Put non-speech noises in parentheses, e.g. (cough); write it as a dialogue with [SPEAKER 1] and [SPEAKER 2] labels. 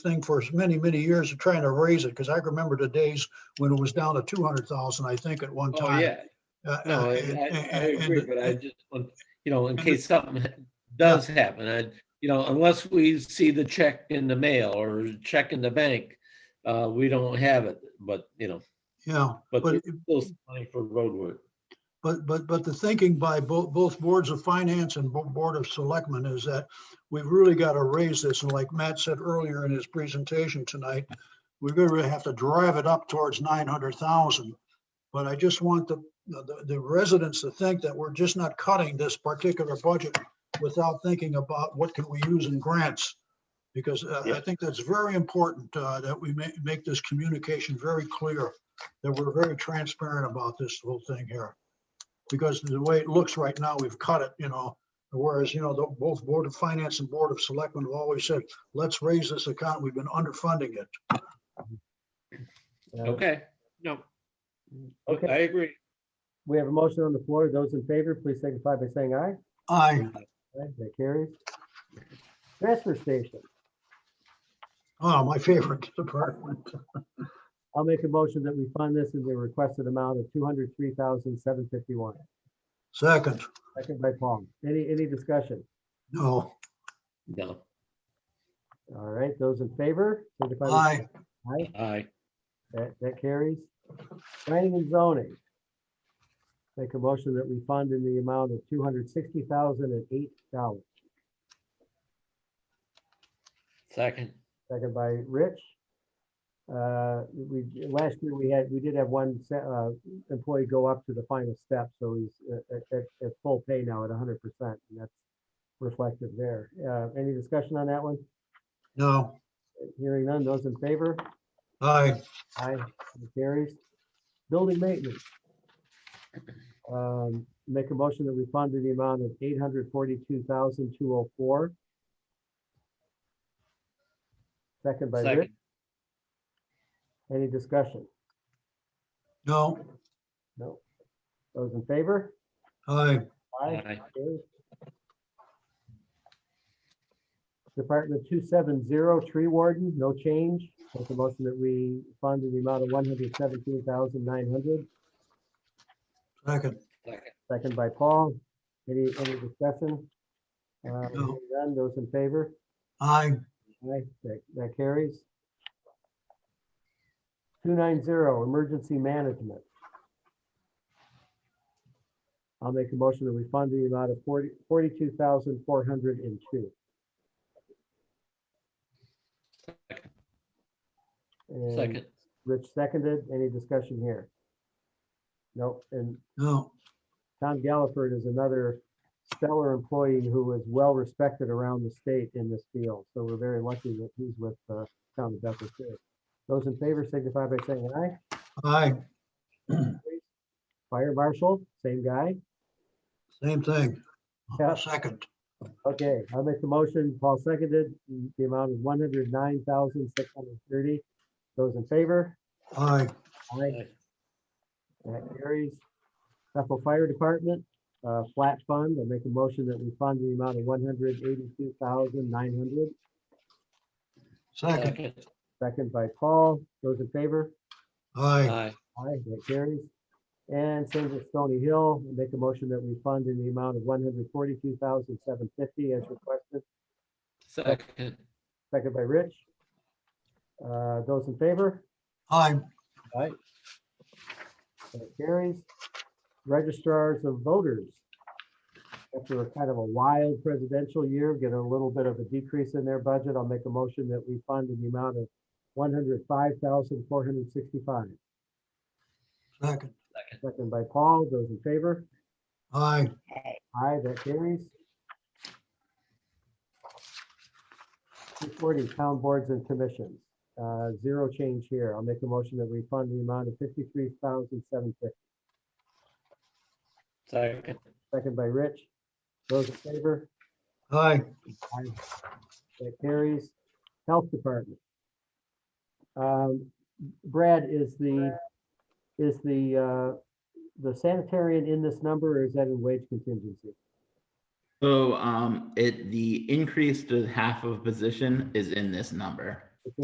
[SPEAKER 1] thing for many, many years of trying to raise it, because I remember the days when it was down to two hundred thousand, I think, at one
[SPEAKER 2] Oh,
[SPEAKER 1] time.
[SPEAKER 2] yeah,
[SPEAKER 1] Uh, (laughs)
[SPEAKER 2] no,
[SPEAKER 1] uh,
[SPEAKER 2] I,
[SPEAKER 1] and-
[SPEAKER 2] I- I
[SPEAKER 1] and-
[SPEAKER 2] agree,
[SPEAKER 1] and-
[SPEAKER 2] but I just, want- you know, in case something does happen, I, you know, unless we see the check in the mail or check in the bank, uh, we don't have it, but, you know,
[SPEAKER 1] Yeah,
[SPEAKER 2] but
[SPEAKER 1] but,
[SPEAKER 2] there's still some money for road work.
[SPEAKER 1] but, but, but the thinking by both, both boards of finance and Bo- board of selectmen is that we've really got to raise this, and like Matt said earlier in his presentation tonight, we're going to have to drive it up towards nine hundred thousand. But I just want the, the, the residents to think that we're just not cutting this particular budget without thinking about what can we use in grants. Because uh, I
[SPEAKER 2] Yeah.
[SPEAKER 1] think that's very important, uh, that we make, make this communication very clear, that we're very transparent about this whole thing here. Because the way it looks right now, we've cut it, you know, whereas, you know, the, both Board of Finance and Board of Selectmen have always said, let's raise this account, we've been underfunding it.
[SPEAKER 3] Uh,
[SPEAKER 2] Okay, no.
[SPEAKER 3] Okay.
[SPEAKER 2] I agree.
[SPEAKER 3] uh, We have a motion on the floor. Those in favor, please signify by saying aye.
[SPEAKER 1] Aye.
[SPEAKER 3] Aye, That carries. Transfer station.
[SPEAKER 1] Oh, my favorite (laughs) department.
[SPEAKER 3] I'll make a motion that we fund this in the requested amount of two hundred three thousand seven fifty-one.
[SPEAKER 1] Second,
[SPEAKER 3] Second by Paul. Any, any discussion?
[SPEAKER 1] no,
[SPEAKER 2] No,
[SPEAKER 3] All right, those in favor? signify by
[SPEAKER 1] aye,
[SPEAKER 3] saying Aye,
[SPEAKER 2] I,
[SPEAKER 3] that, that carries. Planning and zoning. Make a motion that we fund in the amount of two hundred sixty thousand and eight dollars.
[SPEAKER 2] second,
[SPEAKER 3] Second by Rich. Uh, We, last year, we had, we did have one se- uh, employee go up to the final step, so he's at- at, at- at full pay now at hundred percent, and that's reflective there. Uh, Any discussion on that one?
[SPEAKER 1] no,
[SPEAKER 3] Hearing none, those in favor?
[SPEAKER 1] aye,
[SPEAKER 3] Aye, it carries. Building maintenance. Um, Make a motion that we fund in the amount of eight hundred forty-two thousand two oh four. Second by Rich.
[SPEAKER 2] second,
[SPEAKER 3] Any discussion?
[SPEAKER 1] no,
[SPEAKER 3] No. Those in favor?
[SPEAKER 1] aye,
[SPEAKER 2] Aye.
[SPEAKER 3] Carried. Department two seven zero, tree warden, no change. Make a motion that we fund in the amount of one hundred seventeen thousand nine hundred.
[SPEAKER 1] second,
[SPEAKER 2] second,
[SPEAKER 3] Second by Paul. Any, any discussion? Uh,
[SPEAKER 1] No.
[SPEAKER 3] hearing none, those in favor?
[SPEAKER 1] aye,
[SPEAKER 3] Aye, that, that carries. Two nine zero, emergency management. I'll make a motion that we fund the amount of forty, forty-two thousand four hundred and two.
[SPEAKER 2] Second.
[SPEAKER 3] And
[SPEAKER 2] second,
[SPEAKER 3] Rich seconded, any discussion here? Nope, and
[SPEAKER 1] no,
[SPEAKER 3] Tom Galliford is another stellar employee who is well respected around the state in this field. So we're very lucky that he's with uh, Town of Bedford. too. Those in favor signify by saying aye.
[SPEAKER 1] aye,
[SPEAKER 3] Fire marshal, same guy.
[SPEAKER 1] same thing.
[SPEAKER 3] Yeah.
[SPEAKER 1] Second,
[SPEAKER 3] Okay, I'll make the motion. Paul seconded. The amount is one hundred nine thousand six hundred thirty. Those in favor?
[SPEAKER 1] aye,
[SPEAKER 3] Aye.
[SPEAKER 2] Aye.
[SPEAKER 3] That carries. Bethel Fire Department, uh, flat fund. I'll make a motion that we fund the amount of one hundred eighty-two thousand nine hundred.
[SPEAKER 1] second,
[SPEAKER 2] second,
[SPEAKER 3] Second by Paul. Those in favor?
[SPEAKER 1] aye,
[SPEAKER 2] aye,
[SPEAKER 3] Aye, that carries. And same with Stony Hill, make a motion that we fund in the amount of one hundred forty-two thousand seven fifty as requested,
[SPEAKER 2] second,
[SPEAKER 3] second by Rich. Uh, those in favor?
[SPEAKER 1] aye,
[SPEAKER 3] That carries. Registrars of voters. After a kind of a wild presidential year, get a little bit of a decrease in their budget. I'll make a motion that we fund in the amount of one hundred five thousand four hundred sixty-five.
[SPEAKER 1] second,
[SPEAKER 3] Second by Paul. Those in favor?
[SPEAKER 1] aye,
[SPEAKER 3] Aye, that carries. Two forty, town boards and commissions, uh, zero change here. I'll make a motion that we fund the amount of fifty-three thousand seven fifty,
[SPEAKER 2] second,
[SPEAKER 3] second by Rich. Those in favor,
[SPEAKER 1] aye,
[SPEAKER 3] that carries. Health Department. Um, Brad, is the, is the, uh, the sanitarian in this number or is that in wage contingency?
[SPEAKER 4] So um, it, the increase to half of position is in this number.